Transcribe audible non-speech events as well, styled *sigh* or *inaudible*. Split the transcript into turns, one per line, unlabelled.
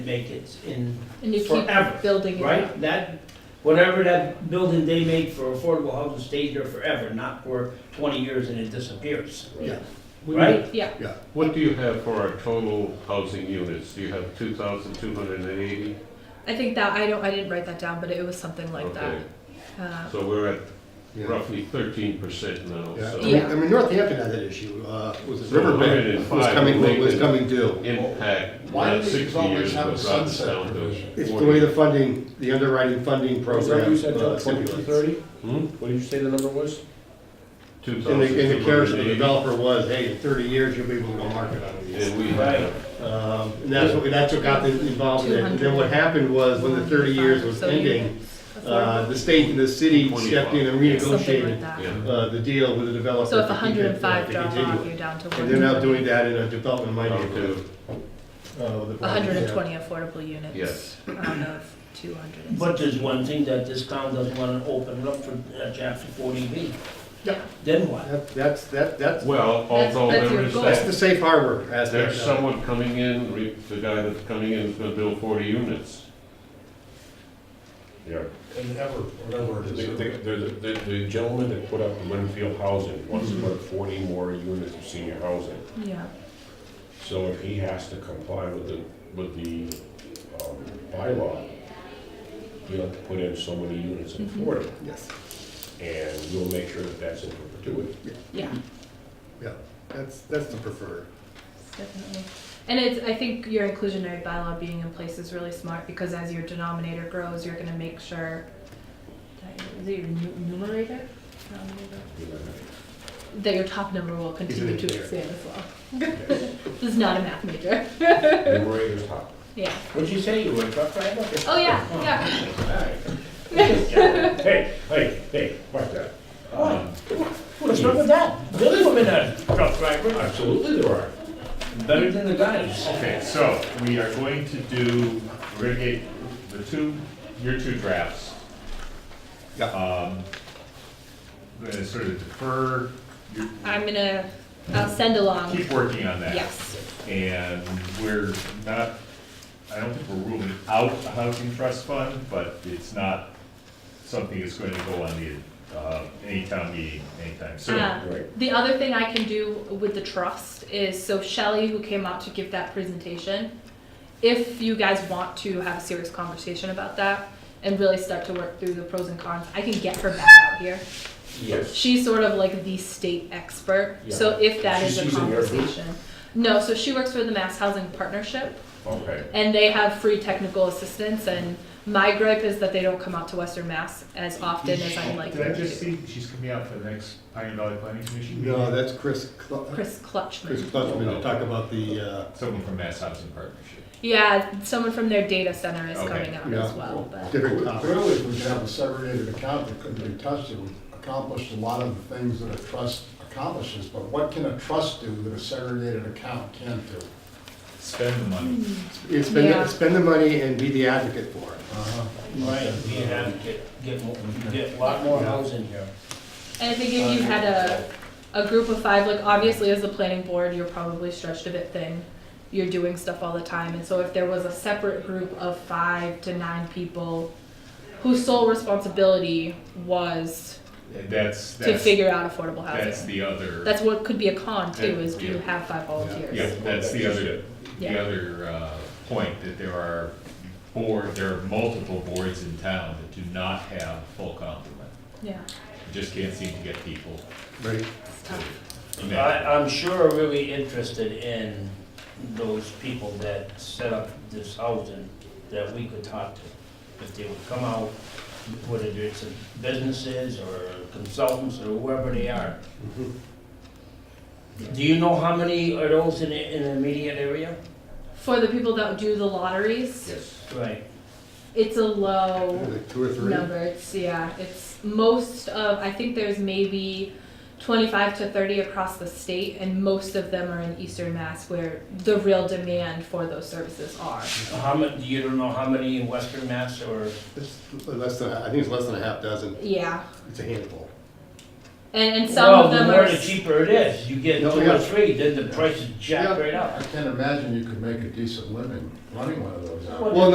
make in
And you keep
forever,
building it up.
right? That, whatever that building they make for affordable housing stays there forever, not for twenty years and it disappears,
Yeah. What do you-
right?
Yeah,
Yeah,
What do you have for our total housing units? Do you have 2,280?
I think that, I don't, I didn't write that down, but it was something like
Okay,
that. Uh,
So we're at
yeah.
roughly 13% now,
Yeah. I
so.
mean- I mean, Northampton had that issue, uh, was it
So
Riverbank was
105
coming, was
Lincoln.
coming due.
Impact,
Why
not
do these
60
always
years,
have
but
a
drops
sunset
down to
provision?
It's the
40.
way the funding, the underwriting funding
Was that
program
you said,
uh,
John, twenty-two
stipulates.
thirty?
Hmm?
What did you say the number was?
And the, and the carriage of the
2,280.
developer was, hey, in thirty years, you'll be able to go market on these.
And we
Right.
have,
Um, and that's what, that's what got them involved in it. And then what happened was, when the thirty years was
So you-
ending, uh,
affordable.
the state and the city stepped in
Something
and
like
renegotiated,
that.
yeah,
uh, the deal with the developer.
So if
to keep it, uh,
hundred and five
to
drop
continue
off,
it.
you're down to one.
And they're now doing that in a development
down
minded.
to,
hundred and twenty affordable units.
Yes.
Out of two hundred and
But
sixty.
there's one thing that this town doesn't wanna open up for uh, chapter forty B,
Yeah,
then what?
That, that's, that, that's,
well,
That's-
although
that's
there
your
is
goal.
that's
that,
the safe harbor aspect.
there's
of it.
someone coming in, re- the guy that's coming in is gonna build 40 units.
Yeah,
And ever, whatever
the,
it is.
the, the- the gentleman
*laughs*
that put up Winfield Housing wants to put up forty more units of senior housing.
yeah,
So if he has to comply with the, with the, um, bylaw, you have to put in so many units in
Mhm.
Florida,
Yes,
and we'll make sure that that's in perpetuity.
yeah,
yeah, that's, that's the preferred.
definitely. And it's, I think your inclusionary bylaw being in place is really smart because as your denominator grows, you're gonna make sure that, is it your nu- numerator? Denominator?
you
that your top number will continue
Isn't
to
it there?
expand as well. *laughs*
know.
This is not a math major.
Numerator's top.
Yeah.
What'd you say, you were a truck driver?
Oh yeah. Yeah.
Alright. Hey, hey, hey, watch that. Um,
What's wrong with that? Billy women are truck drivers,
Absolutely there are.
better than the guys.
Okay, so we are going to do, we're gonna get the two, your two drafts.
Yeah.
Um, We're gonna sort of defer, you
I'm gonna I'll send along.
keep working on that.
Yes.
And we're not, I don't think we're ruling out a housing trust fund, but it's not something that's going to go on the, uh, any town meeting anytime soon.
Uh,
right.
the other thing I can do with the trust is so Shelley, who came out to give that presentation, if you guys want to have a serious conversation about that and really start to work through the pros and cons, I can get her back out here.
Yes.
She's sort of like the state expert. So if that
She-
is
she's
a
in your group?
conversation. No, so she works for the Mass Housing Partnership.
Okay,
And they have free technical assistance, and my gripe is that they don't come out to Western Mass as often as I'd like
Did I
them
just
to.
see, she's coming out for the next Pioneer Valley Planning Commission meeting?
No, that's Chris, Cl-
Chris
Chris
Clutchman.
Clutchman to talk about the, uh,
Someone from Mass Housing Partnership.
Yeah, someone from their data center is
Okay.
coming out
Yeah.
as well, but,
different topics.
Clearly, we should have a segregated account that couldn't be touched, it would accomplish a lot of the things that a trust accomplishes, but what can a trust do that a segregated account can't do?
Spend the money.
Hmm.
Yeah, Spend,
Yeah.
the- spend the money and be the advocate for it.
Uh-huh.
Right, we have, get, get, mo- get a lot more housing here.
and I think if you had a, a group of five, like obviously as the planning board, you're probably stretched a bit thin. You're doing stuff all the time, and so if there was a separate group of five to nine people whose sole responsibility was
And That's,
to
that's,
figure out affordable housing.
that's the other.
That's what could be a con too, is do you
Yeah.
have five volunteers?
Yeah, that's the other, the
Yeah.
other uh, point, that there are board, there are multiple boards in town that do not have full complement.
Yeah,
Just can't seem to get people.
Right.
it's tough.
in
I,
that.
I'm sure are really interested in those people that set up this housing that we could talk to. If they would come out, whether it's businesses or consultants or whoever they are. Do you know how many are those in, the- in the immediate area?
For the people that do the lotteries,
Yes.
Right.
it's a low
Like two or three.
number, it's, yeah, it's most of, I think there's maybe twenty-five to thirty across the state, and most of them are in eastern Mass where the real demand for those services are.
How mu, you don't know how many in Western Mass or?
It's less than, I think it's less than a half dozen.
Yeah,
It's a handful.
And, and some
Well,
of them
the
are.
more the cheaper it is, you get
No,
two
yeah.
or three, then the price is jacked
Yeah.
right up.
I can't imagine you could make a decent living running one of those out.
Well,
Well,